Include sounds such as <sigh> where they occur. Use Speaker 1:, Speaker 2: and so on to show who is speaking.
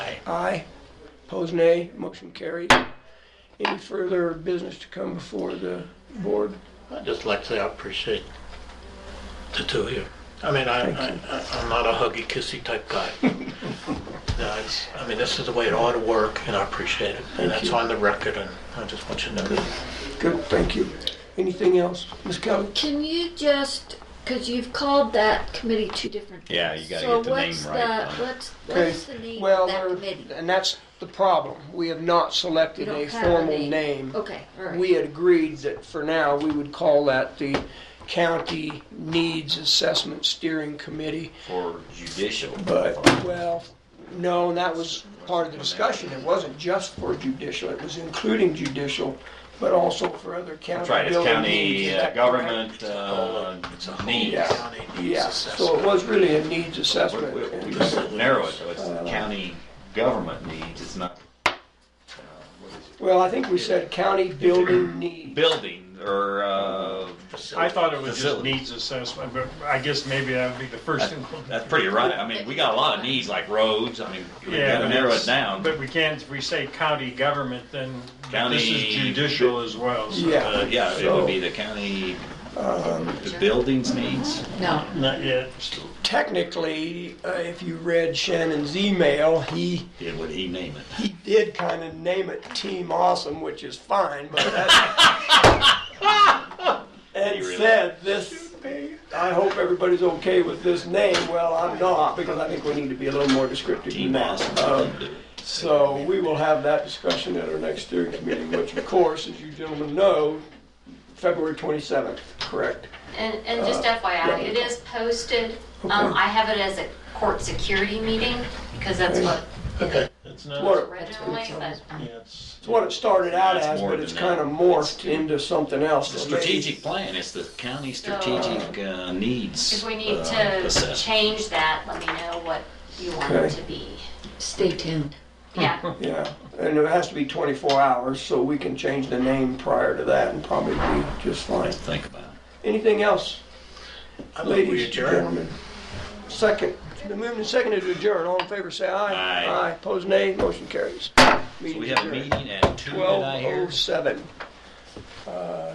Speaker 1: Aye. Pose nay. Motion carried. Any further business to come before the board?
Speaker 2: I'd just like to say I appreciate the two of you. I mean, I, I, I- I'm not a huggy, kissy type
Speaker 1: <laughs>
Speaker 2: guy. No, it's- I mean, this is the way it ought to work, and I appreciate it. And that's on the record, and I just want you to know that.
Speaker 1: Good, thank you. Anything else? Ms. Kelly?
Speaker 3: Can you just, because you've called that committee two different things.
Speaker 4: Yeah, you gotta get the name right on it.
Speaker 3: So what's the,
Speaker 1: Okay.
Speaker 3: what's, what's the name
Speaker 1: Well,
Speaker 3: of that
Speaker 1: there-
Speaker 3: committee?
Speaker 1: And that's the problem. We have not selected
Speaker 3: You
Speaker 1: a
Speaker 3: don't have a
Speaker 1: formal
Speaker 3: name.
Speaker 1: name.
Speaker 3: Okay, all right.
Speaker 1: We had agreed that for now, we would call that the County Needs Assessment Steering Committee.
Speaker 4: for judicial.
Speaker 1: But, well, no, and that was part of the discussion. It wasn't just for judicial, it was including judicial, but also for other county
Speaker 4: That's right, it's
Speaker 1: building
Speaker 4: county
Speaker 1: needs. Is
Speaker 4: uh,
Speaker 1: that correct?
Speaker 4: government, uh,
Speaker 2: It's a whole
Speaker 4: needs.
Speaker 2: county needs
Speaker 1: Yeah, so it
Speaker 2: assessment.
Speaker 1: was really a needs
Speaker 4: We-
Speaker 1: assessment.
Speaker 4: we-
Speaker 1: And-
Speaker 4: We just narrow it, so it's the county government needs, it's not uh, what is
Speaker 1: Well, I think we said county building needs.
Speaker 4: it? building or, uh,
Speaker 5: I thought it was just
Speaker 4: Facility.
Speaker 5: needs assessment, but I guess maybe that would be the first. inclusion.
Speaker 4: that's pretty right. I mean, we got a lot of needs like roads, I mean, we
Speaker 5: Yeah,
Speaker 4: gotta
Speaker 5: but
Speaker 4: narrow
Speaker 5: it's-
Speaker 4: it down.
Speaker 5: But we can't, if we say county government, then this is
Speaker 4: County-
Speaker 5: judicial as well. so-
Speaker 1: Yeah.
Speaker 4: Uh, yeah, it would be the county,
Speaker 1: Um,
Speaker 4: the buildings needs.
Speaker 3: No.
Speaker 5: Not yet.
Speaker 1: Technically, uh, if you read Shannon's email, he,
Speaker 4: Did what he name it.
Speaker 1: he did kind of name it Team Awesome, which is fine, but
Speaker 4: <laughs>
Speaker 1: that's. And said, this, I hope everybody's okay with this name. Well, I'm not, because I think we need to be a little more descriptive than
Speaker 4: Team
Speaker 1: that.
Speaker 4: Boston.
Speaker 1: Um, So we will have that discussion at our next steering committee, which of course, as you gentlemen know, February 27th, correct?
Speaker 6: And, and just
Speaker 1: Uh, yeah.
Speaker 6: FYI, it is posted. Um,
Speaker 1: Okay.
Speaker 6: I have it as a court security meeting because that's what
Speaker 2: Okay,
Speaker 6: it
Speaker 2: it's not,
Speaker 1: What-
Speaker 6: originally, but
Speaker 2: yeah, it's,
Speaker 1: It's what it started out
Speaker 4: It's
Speaker 1: as,
Speaker 4: more
Speaker 1: but
Speaker 4: than
Speaker 1: it's
Speaker 4: that.
Speaker 1: kind of morphed into something else.
Speaker 4: The
Speaker 1: that may-
Speaker 4: strategic plan, it's the county strategic uh, needs.
Speaker 6: Oh. if we need
Speaker 4: uh,
Speaker 6: to
Speaker 4: assessment.
Speaker 6: change that, let me know what you want it
Speaker 1: Okay.
Speaker 6: to be.
Speaker 3: Stay tuned.
Speaker 6: Yeah,
Speaker 1: Yeah, and it has to be 24 hours, so we can change the name prior to that and probably be just fine.
Speaker 4: Think about it.
Speaker 1: Anything else,
Speaker 2: I think we
Speaker 1: ladies and
Speaker 2: adjourn.
Speaker 1: gentlemen? Second, the movement and seconded to adjourn. All in favor, say aye.
Speaker 4: Aye.
Speaker 1: Aye, pose nay, motion carries.
Speaker 4: So
Speaker 1: Meeting
Speaker 4: we have a
Speaker 1: adjourned.
Speaker 4: meeting at two, did I hear?
Speaker 1: 12:07.